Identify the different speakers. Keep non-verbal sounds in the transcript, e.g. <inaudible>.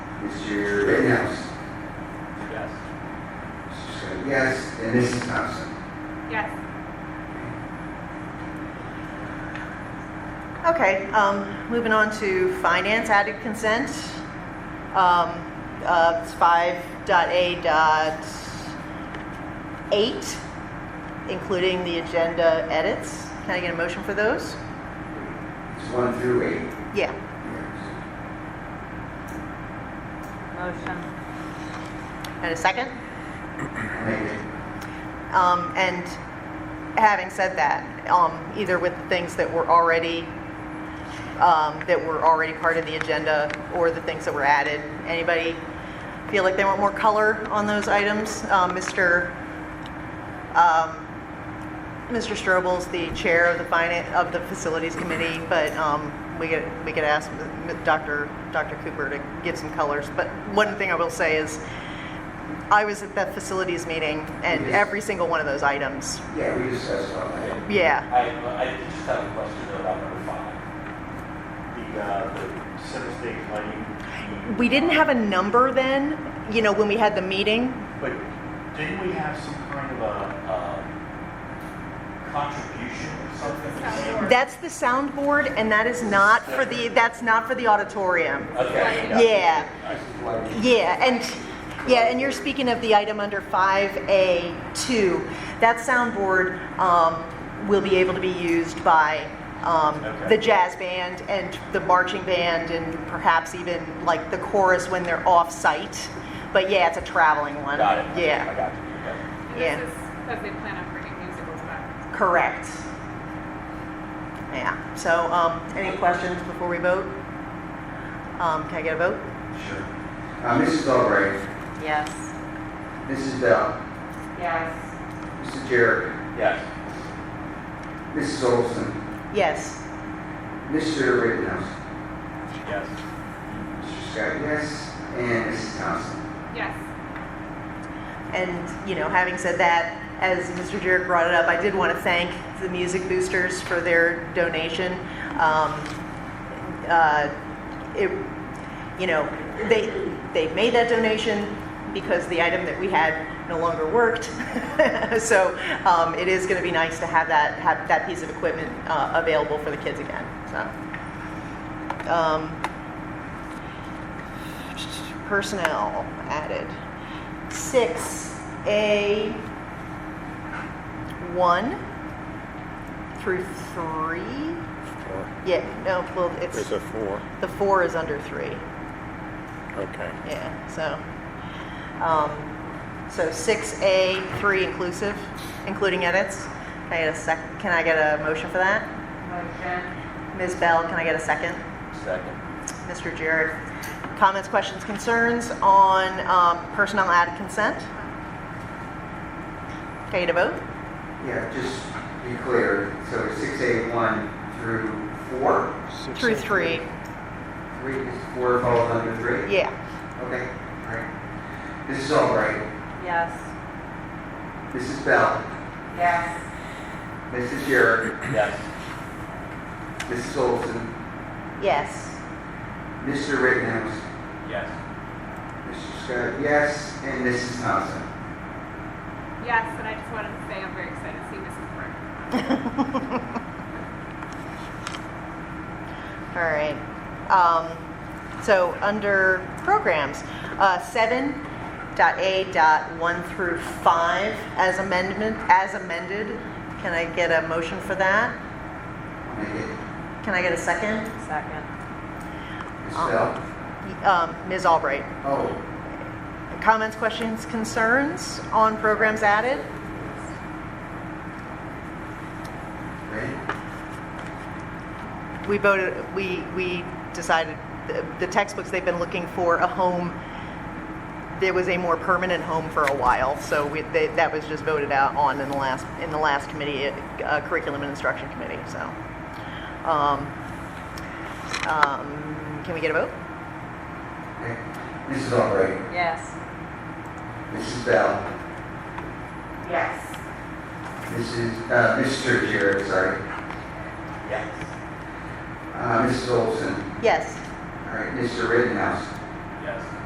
Speaker 1: Mr.
Speaker 2: Rittenhouse.
Speaker 3: Yes.
Speaker 2: Mr. Sir, Yes, and Mrs. Thompson.
Speaker 4: Yes.
Speaker 5: Okay, um, moving on to finance, added consent. Um, uh, it's five dot A dot eight, including the agenda edits. Can I get a motion for those?
Speaker 2: It's one through eight.
Speaker 5: Yeah.
Speaker 2: Yes.
Speaker 4: Motion.
Speaker 5: And a second?
Speaker 2: I'll Make it.
Speaker 5: Um, and having said that, um, either with the things that were already, um, that were already part of the agenda or the things that were added, anybody feel like they want more color on those items? Um, Mr. Um, Mr. Strobel's the chair of the finance, of the facilities committee, but, um, we could, we could ask Dr. Dr. Cooper to give some colors. But one thing I will say is, I was at that facilities meeting and
Speaker 2: Yes.
Speaker 5: every single one of those items.
Speaker 2: Yeah, we discussed all that.
Speaker 5: Yeah.
Speaker 3: I, I just have a question though about number five. The, uh, the center stage lighting. the-
Speaker 5: We didn't have a number then, you know, when we had the meeting.
Speaker 3: But didn't we have some kind of a, um, contribution or something?
Speaker 5: That's the soundboard and that is not for the, that's not for the auditorium.
Speaker 3: Okay.
Speaker 5: Yeah,
Speaker 2: Like,
Speaker 5: yeah, and, yeah, and you're speaking of the item under 5A2. That soundboard um, will be able to be used by um,
Speaker 3: Okay.
Speaker 5: the jazz band and the marching band and perhaps even like the chorus when they're off-site. But yeah, it's a traveling one.
Speaker 3: Got it. Okay,
Speaker 5: Yeah.
Speaker 3: I got you.
Speaker 5: Yeah.
Speaker 4: This is because they plan on bringing musicals back.
Speaker 5: Correct. Yeah, so, um, any questions before we vote? Um, can I get a vote?
Speaker 2: Sure. Uh, Mrs. Albright, uh,
Speaker 4: Yes.
Speaker 2: Mrs. Bell,
Speaker 4: Yes.
Speaker 2: Mr. Jerry,
Speaker 3: Okay. Yes.
Speaker 2: Mrs. Olson,
Speaker 5: Yes.
Speaker 2: Mr. Rittenhouse,
Speaker 3: Yes.
Speaker 2: Mr. Scott, yes, and Mrs. Thompson.
Speaker 4: Yes.
Speaker 5: And, you know, having said that, as Mr. Jarrett brought it up, I did want to thank the Music Boosters for their donation. Um, uh, it, you know, they, they made that donation because the item that we had no longer worked. <laughs> so um, it is going to be nice to have that, have that piece of equipment uh, available for the kids again. So. Um, personnel added. 6A1 through 3?
Speaker 6: Four.
Speaker 5: Yeah, no, well, it's,
Speaker 6: There's a four,
Speaker 5: the 4 is under 3,
Speaker 6: okay.
Speaker 5: yeah, so. um, So 6A, 3 inclusive, including edits. Can I get a sec, can I get a motion for that?
Speaker 4: Motion.
Speaker 5: Ms. Bell, can I get a second?
Speaker 3: Second.
Speaker 5: Mr. Jarrett, comments, questions, concerns on um, personnel added consent? Can I get a vote?
Speaker 2: Yeah, just be clear, so it's six eight one through four,
Speaker 6: Six
Speaker 5: Through
Speaker 6: and
Speaker 5: three,
Speaker 2: three, four falls under three?
Speaker 5: yeah.
Speaker 2: Okay, all right. Mrs. Albright,
Speaker 4: Yes.
Speaker 2: Mrs. Bell,
Speaker 4: Yes.
Speaker 2: Mrs. Jarrett,
Speaker 3: Yes.
Speaker 2: Mrs. Olson,
Speaker 5: Yes.
Speaker 2: Mr. Rittenhouse,
Speaker 3: Yes.
Speaker 2: Mr. Scott, yes, and Mrs. Thompson.
Speaker 4: Yes, and I just wanted to say I'm very excited to see Mrs. Burke.
Speaker 5: All right. Um, so under programs, uh, seven dot A dot one through five as amendment, as amended. Can I get a motion for that?
Speaker 2: Make it
Speaker 5: Can I get a second?
Speaker 4: Second.
Speaker 2: Ms. Bell.
Speaker 5: Um, Ms. Albright,
Speaker 2: Oh,
Speaker 5: comments, questions, concerns on programs added?
Speaker 2: ready?
Speaker 5: We voted, we, we decided, the- the textbooks, they've been looking for a home, there was a more permanent home for a while, so we, they- that was just voted out on in the last, in the last committee, uh, Curriculum and Instruction Committee, so. Um, um, Can we get a vote?
Speaker 2: Okay. Mrs. Albright.
Speaker 4: Yes.
Speaker 2: Mrs. Bell.
Speaker 4: Yes.
Speaker 2: Mrs., uh, Mr. Jarrett, sorry.
Speaker 3: Yes.
Speaker 2: Uh, Mrs. Olson.
Speaker 5: Yes.
Speaker 2: All right, Mr. Rittenhouse.